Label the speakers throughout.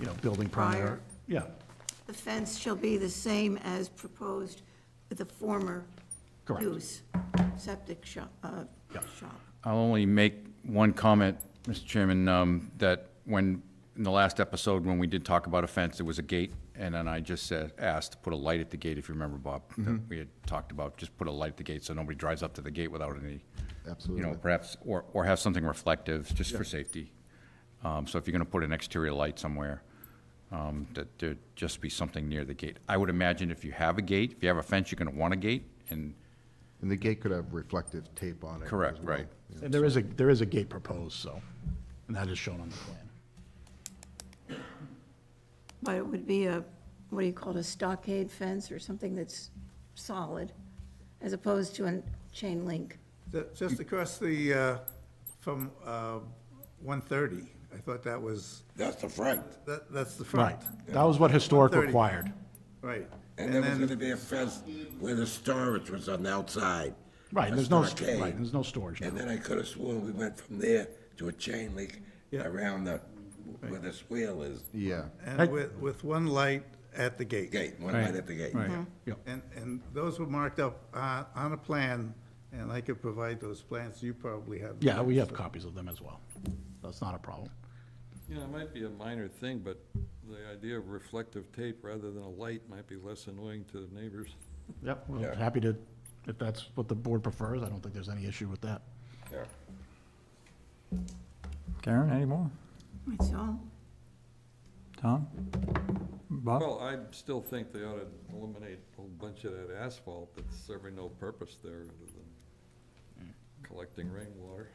Speaker 1: you know, building permit or,
Speaker 2: Prior.
Speaker 1: yeah,
Speaker 2: The fence shall be the same as proposed with the former
Speaker 1: Correct.
Speaker 2: use, septic shop, uh,
Speaker 1: Yeah.
Speaker 2: shop.
Speaker 3: I'll only make one comment, Mr. Chairman, um, that when, in the last episode, when we did talk about a fence, there was a gate, and then I just said, asked to put a light at the gate, if you remember, Bob, that we had talked about, just put a light at the gate so nobody drives up to the gate without any, you know,
Speaker 4: Absolutely.
Speaker 3: perhaps, or, or have something reflective, just for safety. Um, So if you're gonna put an exterior light somewhere, um, that there just be something near the gate. I would imagine if you have a gate, if you have a fence, you're gonna want a gate, and,
Speaker 4: And the gate could have reflective tape on it. as
Speaker 3: correct,
Speaker 4: well.
Speaker 3: right?
Speaker 1: and there is a, there is a gate proposed, so, and that is shown on the plan.
Speaker 2: But it would be a, what do you call it, a stockade fence or something that's solid, as opposed to a chain link.
Speaker 5: Ju- Just across the, uh, from uh, 130, I thought that was,
Speaker 6: That's the front.
Speaker 5: that- that's the front.
Speaker 1: Right, that was what historic
Speaker 5: 130.
Speaker 1: required,
Speaker 5: Right.
Speaker 6: And there was gonna be a fence where the storage was on the outside.
Speaker 1: right,
Speaker 6: a
Speaker 1: and there's no, st-
Speaker 6: stockade.
Speaker 1: right, there's no storage now.
Speaker 6: And then I could've sworn we went from there to a chain link
Speaker 5: Yeah.
Speaker 6: around the, where the swale is,
Speaker 4: Yeah,
Speaker 5: And with, with one light at the gate.
Speaker 6: gate, one light at the gate.
Speaker 1: Yep.
Speaker 5: And, and those were marked up on, on a plan, and I could provide those plans, you probably have. them.
Speaker 1: Yeah, we have copies of them as well, that's not a problem.
Speaker 7: You know, it might be a minor thing, but the idea of reflective tape rather than a light might be less annoying to the neighbors.
Speaker 1: Yep, we're happy to, if that's what the board prefers, I don't think there's any issue with that.
Speaker 6: Yeah.
Speaker 8: Karen, any more?
Speaker 2: That's all.
Speaker 8: Tom? Bob?
Speaker 7: Well, I still think they ought to eliminate a whole bunch of that asphalt that's serving no purpose there other than
Speaker 9: Mm.
Speaker 7: collecting rainwater.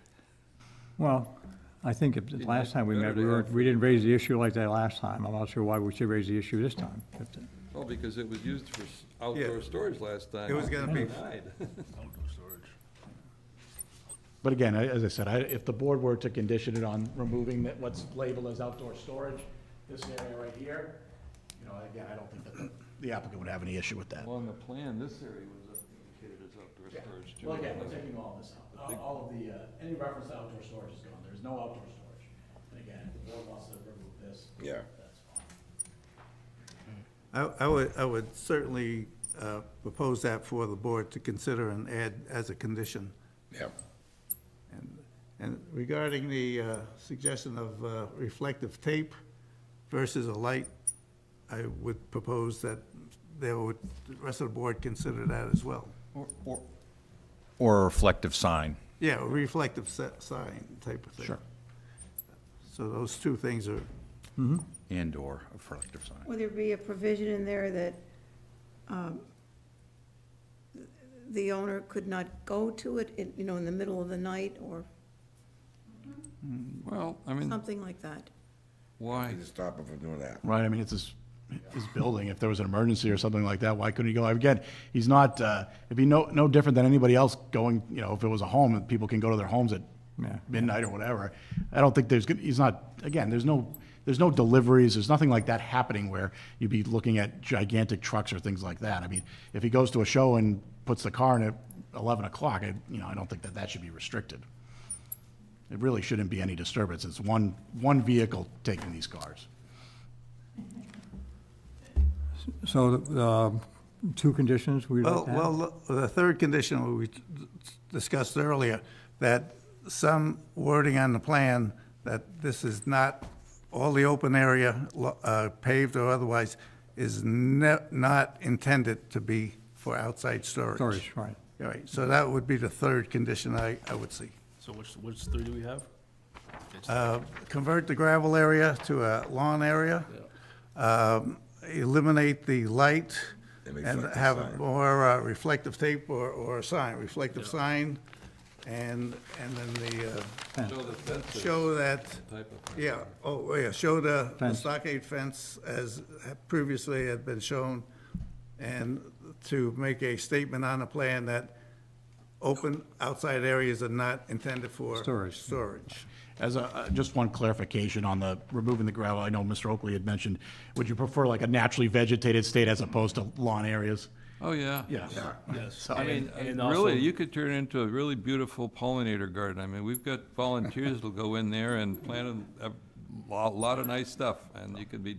Speaker 8: Well, I think if- the last time we met, we weren't, we didn't raise the issue like that last time. I'm not sure why we should raise the issue this time. uh,
Speaker 7: Well, because it was used for s- outdoor storage last time.
Speaker 5: It was gonna be-
Speaker 7: Denied.
Speaker 1: But again, I- as I said, I, if the board were to condition it on removing that, what's labeled as outdoor storage, this area right here, you know, again, I don't think that the- the applicant would have any issue with that.
Speaker 7: On the plan, this area was indicated as outdoor storage too.
Speaker 1: Well, again, we're taking all this out, All- all of the, uh, any reference to outdoor storage is gone, there's no outdoor storage. And again, if the board wants to remove this,
Speaker 6: Yeah.
Speaker 1: that's fine.
Speaker 5: I, I would, I would certainly uh, propose that for the board to consider and add as a condition.
Speaker 6: Yeah.
Speaker 5: And- And regarding the uh, suggestion of uh, reflective tape versus a light, I would propose that they would, the rest of the board consider that as well.
Speaker 3: Or a reflective sign.
Speaker 5: Yeah, a reflective se- sign type of thing. Sure. So those two things are,
Speaker 3: and/or a reflective sign.
Speaker 2: Would there be a provision in there that um, the owner could not go to it, in- you know, in the middle of the night or
Speaker 7: Well, I mean,
Speaker 2: something like that?
Speaker 6: I
Speaker 7: why?
Speaker 6: just stop him from doing that.
Speaker 1: Right, I mean, it's his, his building, if there was an emergency or something like that, why couldn't he go? Again, he's not, uh, it'd be no, no different than anybody else going, you know, if it was a home, and people can go to their homes at
Speaker 8: Yeah.
Speaker 1: midnight or whatever. I don't think there's, gonna- he's not, again, there's no, there's no deliveries, there's nothing like that happening where you'd be looking at gigantic trucks or things like that. I mean, if he goes to a show and puts the car in at eleven o'clock, I, you know, I don't think that that should be restricted. It really shouldn't be any disturbance, it's one, one vehicle taking these cars.
Speaker 8: So, um, two conditions we'd
Speaker 5: Oh, well,
Speaker 8: like to have.
Speaker 5: well, the third condition we discussed earlier, that some wording on the plan that this is not, all the open area lo- uh, paved or otherwise is ne- not intended to be for outside storage.
Speaker 8: Storage, right.
Speaker 5: All right, so that would be the third condition I, I would see.
Speaker 9: So which, which three do we have?
Speaker 5: Uh, Convert the gravel area to a lawn area. Um, Eliminate the light
Speaker 6: And
Speaker 5: and
Speaker 6: reflective
Speaker 5: have
Speaker 6: sign.
Speaker 5: more uh, reflective tape or, or a sign, reflective sign. And, and then the, uh,
Speaker 7: Show the fence is
Speaker 5: show that,
Speaker 7: type of thing.
Speaker 5: yeah, oh, yeah, show the the
Speaker 8: Fence.
Speaker 5: stockade fence as previously had been shown. And to make a statement on the plan that open outside areas are not intended for
Speaker 8: Storage.
Speaker 5: Storage.
Speaker 1: As a, uh, just one clarification on the removing the gravel, I know Mr. Oakley had mentioned, would you prefer like a naturally vegetated state as opposed to lawn areas?
Speaker 7: Oh, yeah.
Speaker 1: Yeah.
Speaker 9: Yes.
Speaker 7: I mean,
Speaker 9: And
Speaker 7: uh,
Speaker 9: also,
Speaker 7: really, you could turn it into a really beautiful pollinator garden. I mean, we've got volunteers that'll go in there and plant a, a lo- lot of nice stuff, and you could be